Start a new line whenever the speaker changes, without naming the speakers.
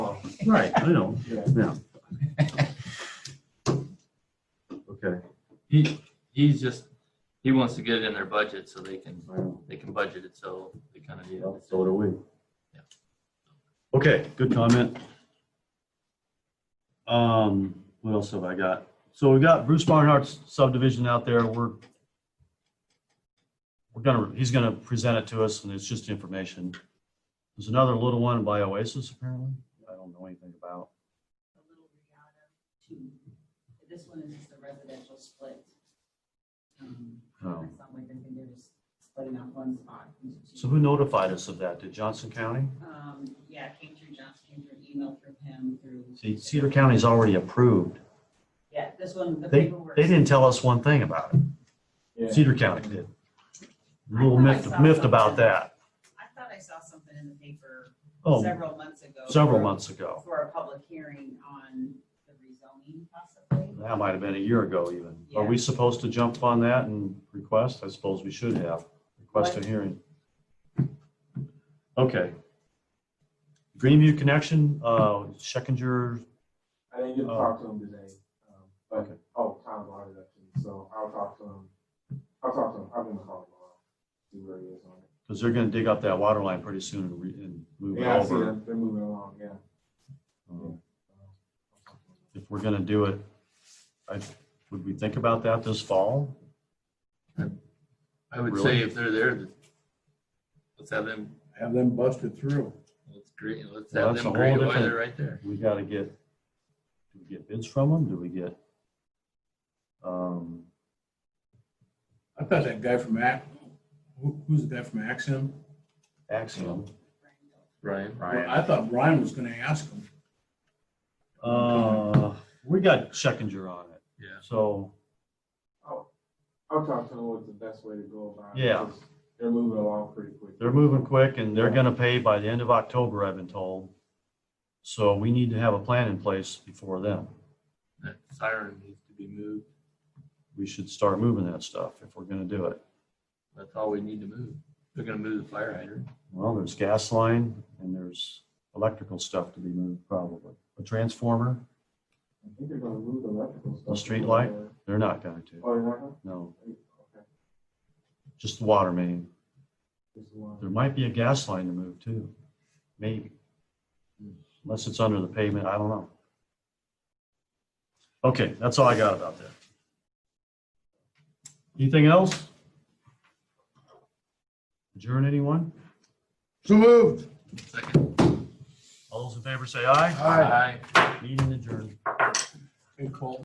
Right, I know,
Yeah.
yeah. Okay,
He, he's just, he wants to get it in their budget so they can,
I know.
they can budget it, so they kind of need
Well,
it.
So do we.
Yeah.
Okay, good comment. Um, what else have I got? So we got Bruce Barnhart's subdivision out there. We're we're gonna, he's gonna present it to us and it's just information. There's another little one by Oasis apparently. I don't know anything about.
a little regatta two. This one is just a residential split. Um,
Oh.
It's not like they're they're just splitting up one spot into two.
So who notified us of that? Did Johnson County?
Um, yeah, it came through Johnson, came through email through him, through.
See, Cedar County's already approved.
Yeah, this one, the
They,
paperwork.
they didn't tell us one thing about it.
Yeah.
Cedar County did. A little miffed, miffed about that.
I thought I saw something in the paper
Oh,
several months ago.
several
for-
months ago.
For a public hearing on the rezoning possibly.
That might have been a year ago even. Are we supposed to jump on that and request? I suppose we should have. Request a hearing. Okay. Greenview Connection, uh, Schekinger,
I didn't get to
Oh.
talk to him today. um, But,
Okay.
oh, Tom brought it up to me, so I'll talk to him. I'll talk to him. I'll give him a call tomorrow. See where he is on it.
because they're going to dig up that water line pretty soon and re- and move it
Yeah, I see
over.
them. They're moving along, yeah.
Um,
I'll talk to him.
If we're going to do it, I, would we think about that this fall?
I would
Really?
say if they're there, that- let's have them,
have them busted through.
let's grade, let's
Well,
have
that's
them
a whole
grade why
different-
they're right there.
we gotta get, do we get bids from them? Do we get? um,
I thought that guy from Ax, who, who's the guy from Axiom?
Axiom?
Right.
Well, I thought Brian was gonna ask him.
Uh, we got Schekinger on it.
Yeah.
So,
I'll- I'll talk to him what's the best way to go about it.
Yeah.
'cause They're moving along pretty quick.
they're moving quick and they're gonna pay by the end of October, I've been told. So we need to have a plan in place before then.
That siren needs to be moved.
We should start moving that stuff if we're gonna do it.
That's all we need to move. They're gonna move the fire hydrant.
Well, there's gas line and there's electrical stuff to be moved probably. A transformer,
I think they're gonna move the electrical stuff.
The street light? they're not going to,
Oh, you're not gonna?
no,
Okay.
just the water main.
Just one.
There might be a gas line to move too, maybe. Unless it's under the pavement, I don't know. Okay, that's all I got about that. Anything else? Adjourn anyone?
So moved.
Second.
All those in favor say aye.
Aye.
Aye.
Meeting adjourned.